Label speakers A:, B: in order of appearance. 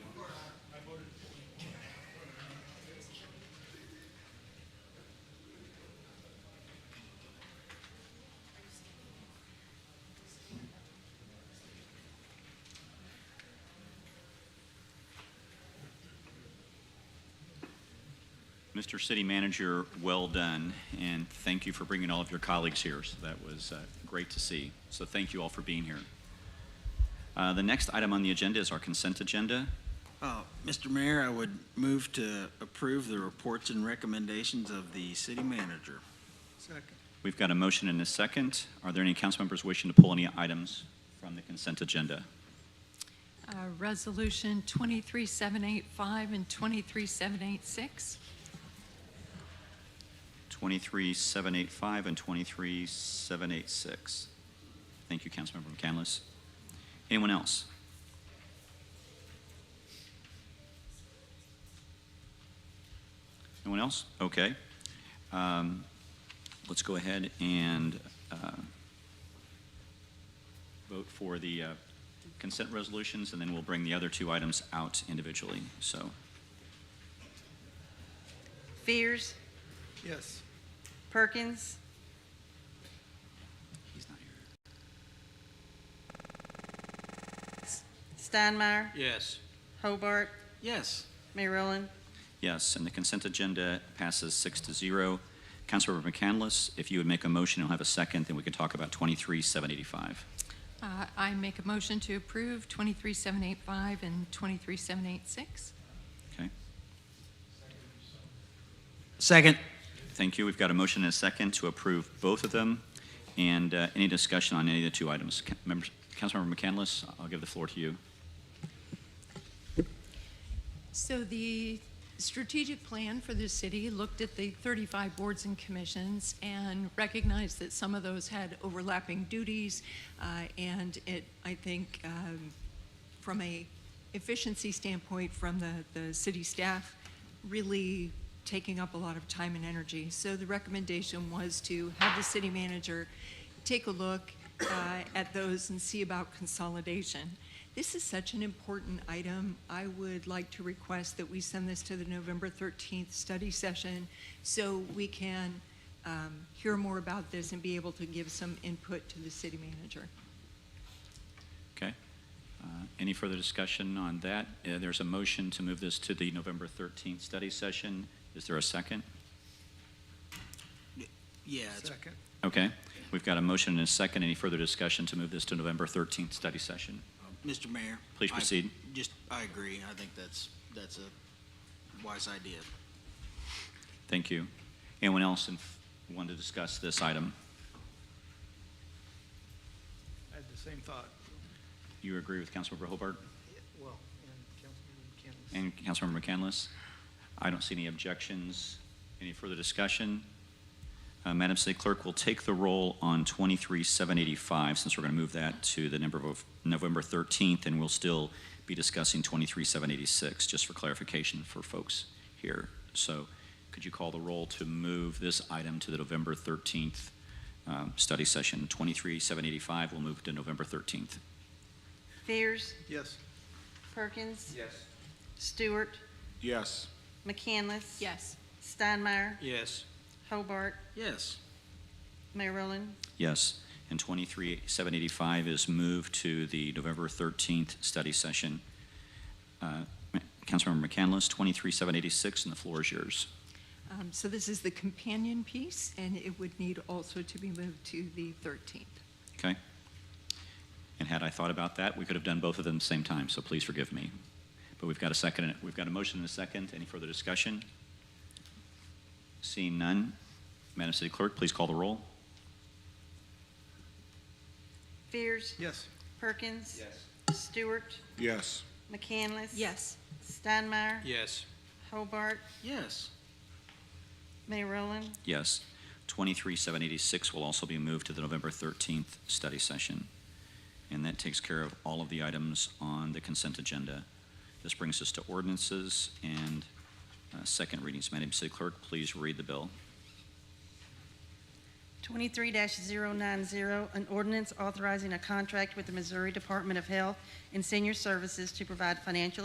A: Mr. City Manager, well done, and thank you for bringing all of your colleagues here. So that was uh, great to see. So thank you all for being here. Uh, The next item on the agenda is our consent agenda.
B: Uh, Mr. Mayor, I would move to approve the reports and recommendations of the city manager.
A: We've got a motion and a second. Are there any council members wishing to pull any items from the consent agenda?
C: Uh, Resolution 23785 and 23786.
A: 23785 and 23786. Thank you, Councilmember McCandless. Anyone else? No one else? Okay. Um, Let's go ahead and uh, vote for the uh, consent resolutions, and then we'll bring the other two items out individually. So,
D: Fears,
E: Yes.
D: Perkins,
A: he's not here.
D: Steinmeier,
E: Yes.
D: Hobart,
B: Yes.
D: Mayor Rowland,
A: Yes, and the consent agenda passes six to zero. Councilmember McCandless, if you would make a motion, you'll have a second, then we can talk about 23785.
C: Uh, I make a motion to approve 23785 and 23786.
A: Okay?
B: Second.
A: Thank you. We've got a motion and a second to approve both of them. And uh, any discussion on any of the two items? Ca- members- Councilmember McCandless, I'll give the floor to you.
C: So the strategic plan for the city looked at the 35 boards and commissions and recognized that some of those had overlapping duties. uh, And it, I think, um, from a efficiency standpoint, from the, the city staff, really taking up a lot of time and energy. So the recommendation was to have the city manager take a look uh, at those and see about consolidation. This is such an important item. I would like to request that we send this to the November 13th study session so we can um, hear more about this and be able to give some input to the city manager.
A: Okay? Uh, Any further discussion on that? Uh, There's a motion to move this to the November 13th study session. Is there a second?
B: Yeah, it's-
E: Second.
A: Okay. We've got a motion and a second. Any further discussion to move this to November 13th study session?
B: Mr. uh, Mayor.
A: Please
B: I-
A: proceed.
B: Just, I agree. I think that's, that's a wise idea.
A: Thank you. Anyone else in- want to discuss this item?
E: I had the same thought.
A: You agree with Councilmember Hobart
E: Well, and Councilmember McCandless.
A: and Councilmember McCandless? I don't see any objections. Any further discussion? Uh, Madam City Clerk will take the roll on 23-785, since we're going to move that to the number of November 13th, and we'll still be discussing 23-786, just for clarification for folks here. So could you call the roll to move this item to the November 13th um, study session? 23-785 will move to November 13th.
D: Fears,
E: Yes.
D: Perkins,
E: Yes.
D: Stewart,
F: Yes.
D: McCandless.
C: Yes.
D: Steinmeier,
E: Yes.
D: Hobart,
B: Yes.
D: Mayor Rowland,
A: Yes. And 23-785 is moved to the November 13th study session. Uh, Ma- Councilmember McCandless, 23-786, and the floor is yours.
C: Um, So this is the companion piece, and it would need also to be moved to the 13th.
A: Okay? And had I thought about that, we could have done both of them at the same time, so please forgive me. But we've got a second, we've got a motion and a second. Any further discussion? Seeing none, Madam City Clerk, please call the roll.
D: Fears,
E: Yes.
D: Perkins. Stewart,
F: Yes.
D: McCandless. Steinmeier.
E: Yes.
D: Hobart,
B: Yes.
D: Mayor Rowland,
A: Yes. 23-786 will also be moved to the November 13th study session. And that takes care of all of the items on the consent agenda. This brings us to ordinances and uh, second readings. Madam City Clerk, please read the bill.
D: twenty-three 90 an ordinance authorizing a contract with the Missouri Department of Health and Senior Services to provide financial